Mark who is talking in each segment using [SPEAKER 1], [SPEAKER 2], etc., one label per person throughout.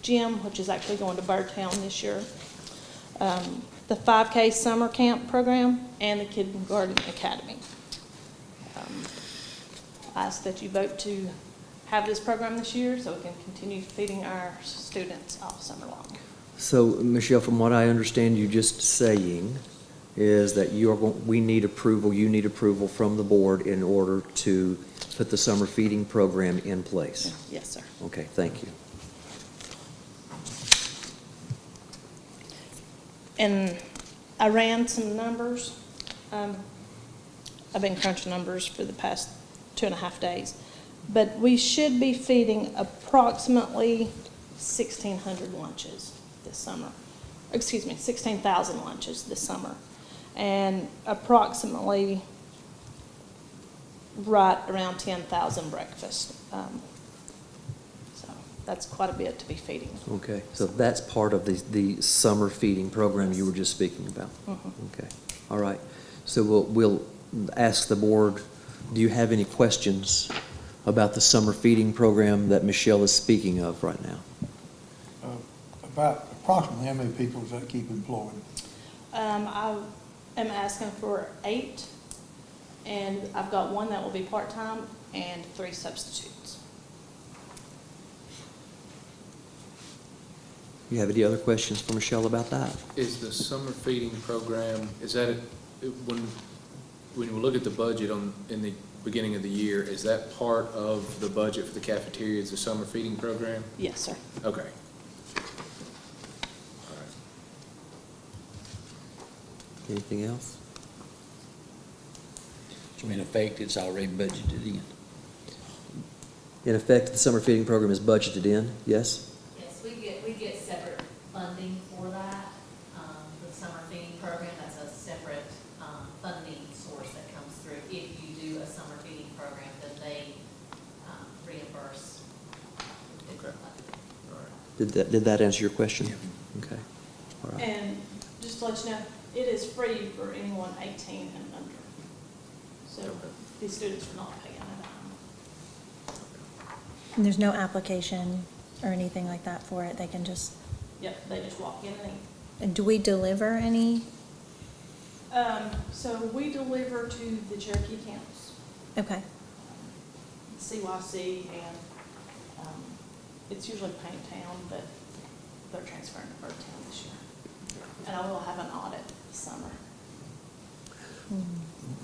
[SPEAKER 1] gym, which is actually going to Birdtown this year, um, the 5K summer camp program, and the kindergarten academy. Um, I ask that you vote to have this program this year so we can continue feeding our students all summer long.
[SPEAKER 2] So, Michelle, from what I understand you just saying, is that you are, going- we need approval, you need approval from the board in order to put the summer feeding program in place.
[SPEAKER 1] Yes, sir.
[SPEAKER 2] Okay, thank you.
[SPEAKER 1] And I ran some numbers. Um, I've been crunching numbers for the past two and a half days. But we should be feeding approximately 1,600 lunches this summer. Excuse me, 16,000 lunches this summer. And approximately right around 10,000 breakfasts. Um, So that's quite a bit to be feeding.
[SPEAKER 2] Okay, so that's part of the, the summer feeding program you were just speaking about?
[SPEAKER 1] Mm-hmm.
[SPEAKER 2] Okay, all right. So we'll, we'll ask the board, do you have any questions about the summer feeding program that Michelle is speaking of right now?
[SPEAKER 3] Uh, About approximately how many people does that keep employed?
[SPEAKER 1] Um, I am asking for eight, and I've got one that will be part-time and three substitutes.
[SPEAKER 2] You have any other questions for Michelle about that?
[SPEAKER 4] Is the summer feeding program, is that, a- when, when you look at the budget on, in the beginning of the year, is that part of the budget for the cafeteria, is the summer feeding program?
[SPEAKER 1] Yes, sir.
[SPEAKER 4] Okay. All right.
[SPEAKER 2] Anything else?
[SPEAKER 5] So in effect, it's already budgeted in.
[SPEAKER 2] In effect, the summer feeding program is budgeted in, yes?
[SPEAKER 6] Yes, we get, we get separate funding for that, um, the summer feeding program, that's a separate, um, funding source that comes through. If you do a summer feeding program, then they, um, reimburse.
[SPEAKER 4] Okay. All right.
[SPEAKER 2] Did that, did that answer your question? Okay, all right.
[SPEAKER 1] And just to let you know, it is free for anyone eighteen and under. So
[SPEAKER 4] Okay.
[SPEAKER 1] these students are not paying a dime.
[SPEAKER 7] And there's no application or anything like that for it, they can just,
[SPEAKER 1] Yep, they just walk in and eat.
[SPEAKER 7] and do we deliver any?
[SPEAKER 1] Um, so we deliver to the Cherokee camps,
[SPEAKER 7] Okay,
[SPEAKER 1] CYC, and, um, it's usually Paint Town, but they're transferring to Bird Town this year. And I will have an audit this summer.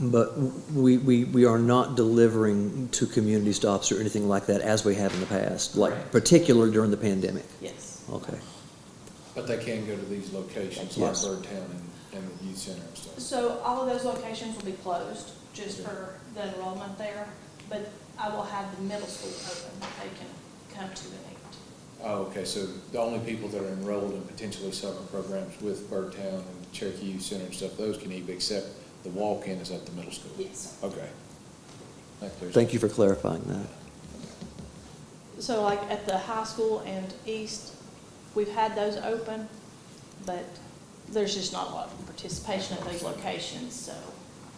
[SPEAKER 2] But we, we, we are not delivering to community stops or anything like that as we have in the past, like
[SPEAKER 4] Correct.
[SPEAKER 2] particularly during the pandemic?
[SPEAKER 1] Yes.
[SPEAKER 2] Okay,
[SPEAKER 4] But they can go to these locations, like
[SPEAKER 2] Yes.
[SPEAKER 4] Birdtown and, and the youth center and stuff.
[SPEAKER 1] So all of those locations will be closed just for the enrollment there, but I will have the middle school open. that They can come to and eat.
[SPEAKER 4] Oh, okay, so the only people that are enrolled in potentially summer programs with Birdtown and Cherokee Youth Center and stuff, those can eat, except the walk-in is at the middle school?
[SPEAKER 1] Yes.
[SPEAKER 4] Okay. That clears it.
[SPEAKER 2] thank you for clarifying that.
[SPEAKER 1] So like at the high school and east, we've had those open, but there's just not a lot of participation at those locations, so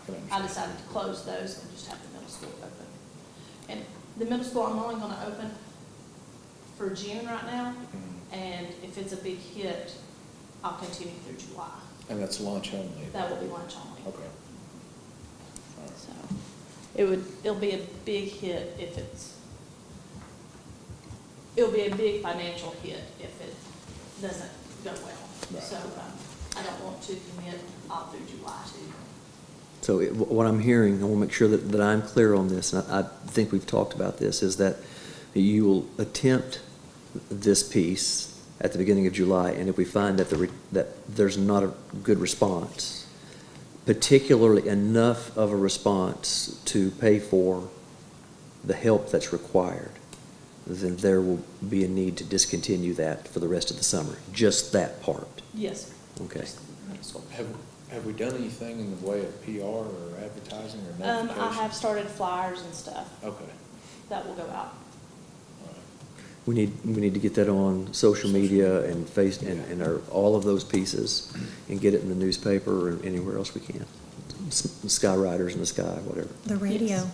[SPEAKER 4] Can understand.
[SPEAKER 1] I decided to close those and just have the middle school open. And the middle school, I'm only gonna open for June right now,
[SPEAKER 4] Mhm.
[SPEAKER 1] and if it's a big hit, I'll continue through July.
[SPEAKER 4] And that's lunch only?
[SPEAKER 1] That will be lunch only.
[SPEAKER 4] Okay. All right.
[SPEAKER 1] So it would, it'll be a big hit if it's, it'll be a big financial hit if it doesn't go well.
[SPEAKER 4] Right.
[SPEAKER 1] So um, I don't want to commit all through July to.
[SPEAKER 2] So it- what I'm hearing, I want to make sure that, that I'm clear on this, and I, I think we've talked about this, is that you will attempt this piece at the beginning of July, and if we find that the, re- that there's not a good response, particularly enough of a response to pay for the help that's required, then there will be a need to discontinue that for the rest of the summer, just that part.
[SPEAKER 1] Yes. sir.
[SPEAKER 2] Okay.
[SPEAKER 1] Just the middle school.
[SPEAKER 4] Have, have we done anything in the way of PR or advertising or
[SPEAKER 1] Um,
[SPEAKER 4] notification?
[SPEAKER 1] I have started flyers and stuff
[SPEAKER 4] Okay.
[SPEAKER 1] that will go out.
[SPEAKER 4] All right.
[SPEAKER 2] We need, we need to get that on social media and face, and, and our, all of those pieces, and get it in the newspaper or anywhere else we can. S- Sky Riders in the Sky, whatever.
[SPEAKER 7] the radio.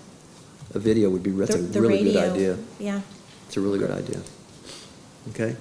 [SPEAKER 2] A video would be, that's a
[SPEAKER 7] The- the
[SPEAKER 2] really good
[SPEAKER 7] radio,
[SPEAKER 2] idea.
[SPEAKER 7] Yeah,
[SPEAKER 2] It's a really good idea. Okay?